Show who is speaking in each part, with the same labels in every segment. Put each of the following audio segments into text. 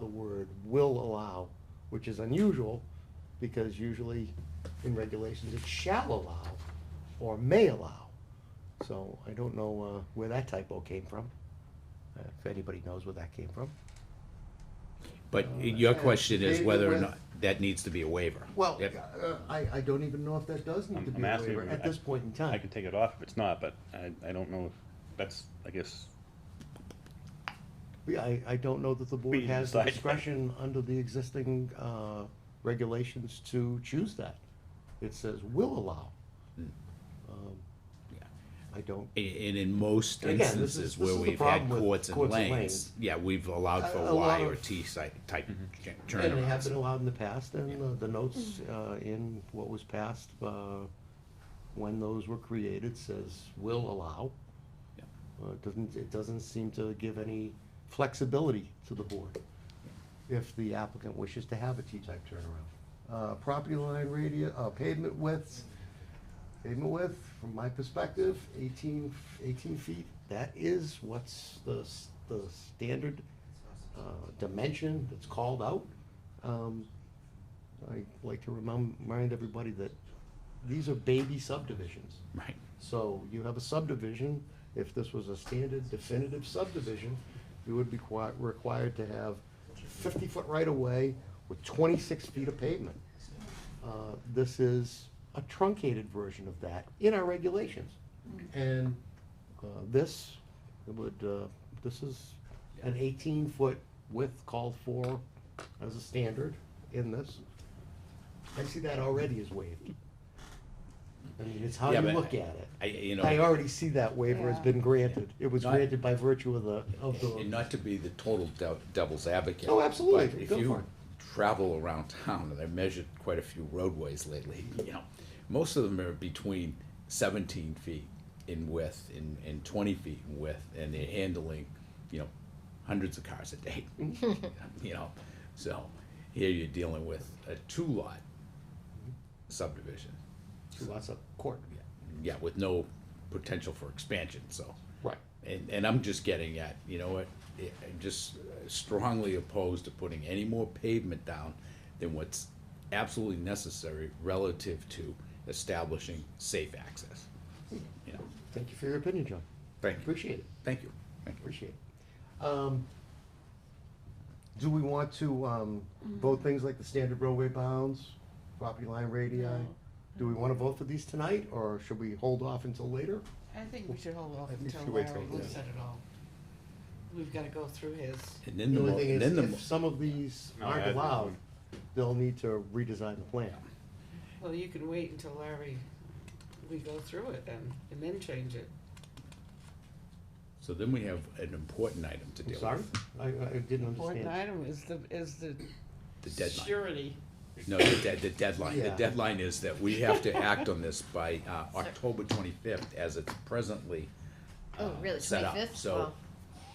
Speaker 1: the word will allow, which is unusual, because usually in regulations it shall allow or may allow. So I don't know uh, where that typo came from, uh, if anybody knows where that came from.
Speaker 2: But your question is
Speaker 1: Oh, Maybe
Speaker 2: whether or
Speaker 1: with-
Speaker 2: not that needs to be a waiver.
Speaker 1: Well,
Speaker 2: Yep.
Speaker 1: uh, I, I don't even know if that does need
Speaker 3: I'm-
Speaker 1: to be
Speaker 3: I'm
Speaker 1: a
Speaker 3: asking
Speaker 1: waiver
Speaker 3: if
Speaker 1: at
Speaker 3: I-
Speaker 1: this point in
Speaker 3: I
Speaker 1: time.
Speaker 3: can take it off if it's not, but I, I don't know if, that's, I guess,
Speaker 1: We- I, I don't know that the board
Speaker 3: We
Speaker 1: has the
Speaker 3: decide.
Speaker 1: discretion under the existing uh, regulations to choose that. It says will allow. Um,
Speaker 2: Yeah.
Speaker 1: I don't,
Speaker 2: And and in most
Speaker 1: Again, this is-
Speaker 2: instances
Speaker 1: this
Speaker 2: where
Speaker 1: is the
Speaker 2: we've had
Speaker 1: problem with
Speaker 2: courts and
Speaker 1: courts and
Speaker 2: lanes,
Speaker 1: lanes.
Speaker 2: yeah, we've allowed
Speaker 1: A- a
Speaker 2: for
Speaker 1: lot
Speaker 2: Y or
Speaker 1: of-
Speaker 2: T site type ch-
Speaker 1: and they have been
Speaker 2: turnarounds.
Speaker 1: allowed in the past, and uh, the notes uh, in what was passed, uh, when those were created, says will allow.
Speaker 2: Yeah.
Speaker 1: Uh, It doesn't, it doesn't seem to give any flexibility to the board if the applicant wishes to have a T-type turnaround. Uh, Property line radius, pavement width, pavement width, from my perspective, 18 18 feet. That is what's the, s- the standard uh, dimension that's called out. Um, I'd like to remem- remind everybody that these are baby subdivisions.
Speaker 2: Right.
Speaker 1: So you have a subdivision, if this was a standard definitive subdivision, you would be qui- required to have fifty-foot right-of-way with twenty-six feet of pavement. Uh, This is a truncated version of that in our regulations. And uh, this would, uh, this is an eighteen-foot width called for as a standard in this. I see that already is waived. I mean, it's how
Speaker 2: Yeah,
Speaker 1: you
Speaker 2: but
Speaker 1: look at it.
Speaker 2: I, you
Speaker 1: I
Speaker 2: know,
Speaker 1: already see that waiver has
Speaker 4: Yeah.
Speaker 1: been granted. It was
Speaker 2: Not-
Speaker 1: granted by virtue of the, of
Speaker 2: and
Speaker 1: the,
Speaker 2: not to be the total dev- devil's advocate.
Speaker 1: Oh, absolutely.
Speaker 2: but If
Speaker 1: Go for
Speaker 2: you
Speaker 1: it.
Speaker 2: travel around town, and I've measured quite a few roadways lately, you know, most of them are between seventeen feet in width and, and twenty feet in width, and they're handling, you know, hundreds of cars a day. You know, so here you're dealing with a two-lot
Speaker 1: Mm-hmm.
Speaker 2: subdivision,
Speaker 1: lots of court.
Speaker 2: yeah, with no potential for expansion, so.
Speaker 1: Right.
Speaker 2: And, and I'm just getting at, you know what, I- I'm just strongly opposed to putting any more pavement down than what's absolutely necessary relative to establishing safe access. You know,
Speaker 1: Thank you for your opinion, John.
Speaker 2: thank you,
Speaker 1: Appreciate it.
Speaker 2: thank you, thank you.
Speaker 1: Appreciate it. Um, Do we want to um,
Speaker 4: Mm-hmm.
Speaker 1: vote things like the standard roadway bounds, property line radii?
Speaker 4: No.
Speaker 1: Do we want to vote for these tonight, or should we hold off until later?
Speaker 4: I think we should hold off
Speaker 1: I think
Speaker 4: until
Speaker 1: we wait till-
Speaker 4: Larry
Speaker 1: yeah.
Speaker 4: looks at it all. We've gotta go through his,
Speaker 2: And then
Speaker 1: The
Speaker 2: the,
Speaker 1: only
Speaker 2: mo-
Speaker 1: thing is,
Speaker 2: then the, mo-
Speaker 1: if some of these
Speaker 3: No, I
Speaker 1: aren't
Speaker 3: agree.
Speaker 1: allowed, they'll need to redesign the plan.
Speaker 4: well, you can wait until Larry, we go through it then, and then change it.
Speaker 2: so then we have an important item to
Speaker 1: I'm
Speaker 2: deal
Speaker 1: sorry?
Speaker 2: with,
Speaker 1: I, I didn't
Speaker 4: Important
Speaker 1: understand.
Speaker 4: item is the, is the
Speaker 2: the deadline.
Speaker 4: surety.
Speaker 2: No, the dead, the deadline, the
Speaker 1: Yeah.
Speaker 2: deadline is that we have to act on this by, uh, October twenty-fifth as it's presently,
Speaker 5: Oh,
Speaker 2: uh,
Speaker 5: really?
Speaker 2: set up.
Speaker 5: 25th?
Speaker 2: So,
Speaker 5: Wow.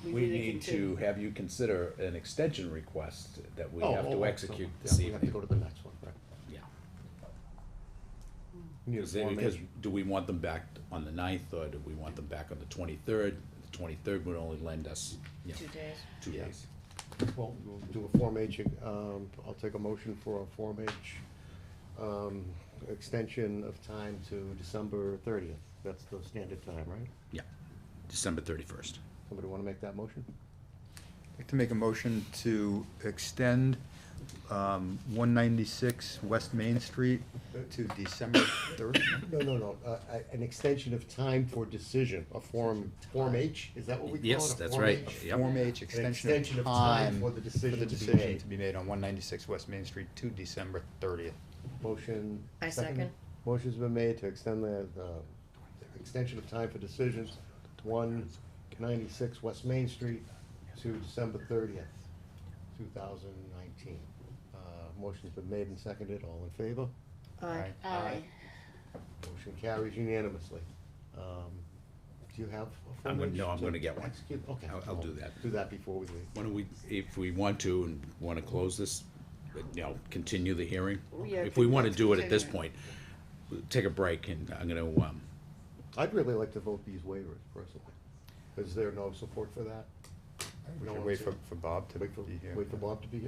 Speaker 2: We
Speaker 4: really
Speaker 2: need to
Speaker 4: continue.
Speaker 2: have you consider an extension request that we
Speaker 1: Oh,
Speaker 2: have
Speaker 1: oh, oh,
Speaker 2: to
Speaker 1: so,
Speaker 2: execute
Speaker 1: yeah,
Speaker 2: this
Speaker 1: We have to go
Speaker 2: evening.
Speaker 1: to the next one, right?
Speaker 2: Yeah,
Speaker 1: Need a
Speaker 2: Is it-
Speaker 1: Form A.
Speaker 2: because do we want them back on the ninth or do we want them back on the twenty-third? The twenty-third would only lend us, you know,
Speaker 5: Two days.
Speaker 2: two
Speaker 1: Yeah.
Speaker 2: days.
Speaker 1: Well, we'll do a Form H, um, I'll take a motion for a Form H, um, extension of time to December thirtieth. That's the standard time, right?
Speaker 2: Yeah, December thirty-first.
Speaker 1: Somebody wanna make that motion?
Speaker 6: I'd like to make a motion to extend um, 196 West Main Street to December 3rd.
Speaker 1: No, no, no, uh, a- an extension of time for decision, a Form, Form H, is that what we call it?
Speaker 2: Yes,
Speaker 1: A
Speaker 2: that's
Speaker 1: Form
Speaker 2: right.
Speaker 1: H?
Speaker 2: Yep.
Speaker 6: Form H,
Speaker 1: extension
Speaker 6: extension
Speaker 1: of
Speaker 6: of
Speaker 1: time
Speaker 6: time
Speaker 1: for the decision to be made.
Speaker 6: to be made on 196 West Main Street to December 30th.
Speaker 1: Motion.
Speaker 5: I second.
Speaker 1: Motion's been made to extend the, the extension of time for decisions, one ninety-six West Main Street to December thirtieth, two thousand nineteen. Uh, motion's been made and seconded, all in favor?
Speaker 5: Aye.
Speaker 6: Aye. Aye.
Speaker 1: Motion carries unanimously. Um, Do you have a form?
Speaker 2: I'm gonna- no,
Speaker 1: H
Speaker 2: I'm
Speaker 1: to
Speaker 2: gonna get one.
Speaker 1: execute? Okay.
Speaker 2: I'll- I'll do that.
Speaker 1: Do that before we leave.
Speaker 2: Why don't we, if we want to and want to close this, you know, continue the hearing?
Speaker 4: Yeah,
Speaker 2: If we want to
Speaker 4: let's
Speaker 2: do it at this
Speaker 4: continue
Speaker 2: point, we'll take a break and I'm gonna, um,
Speaker 1: I'd really like to vote these waivers personally. Is there no support for that? We don't
Speaker 6: We should
Speaker 1: wanna
Speaker 6: wait
Speaker 1: see
Speaker 6: for,
Speaker 1: it.
Speaker 6: for Bob to
Speaker 1: Wait for,
Speaker 6: be here.
Speaker 1: wait for Bob to be here.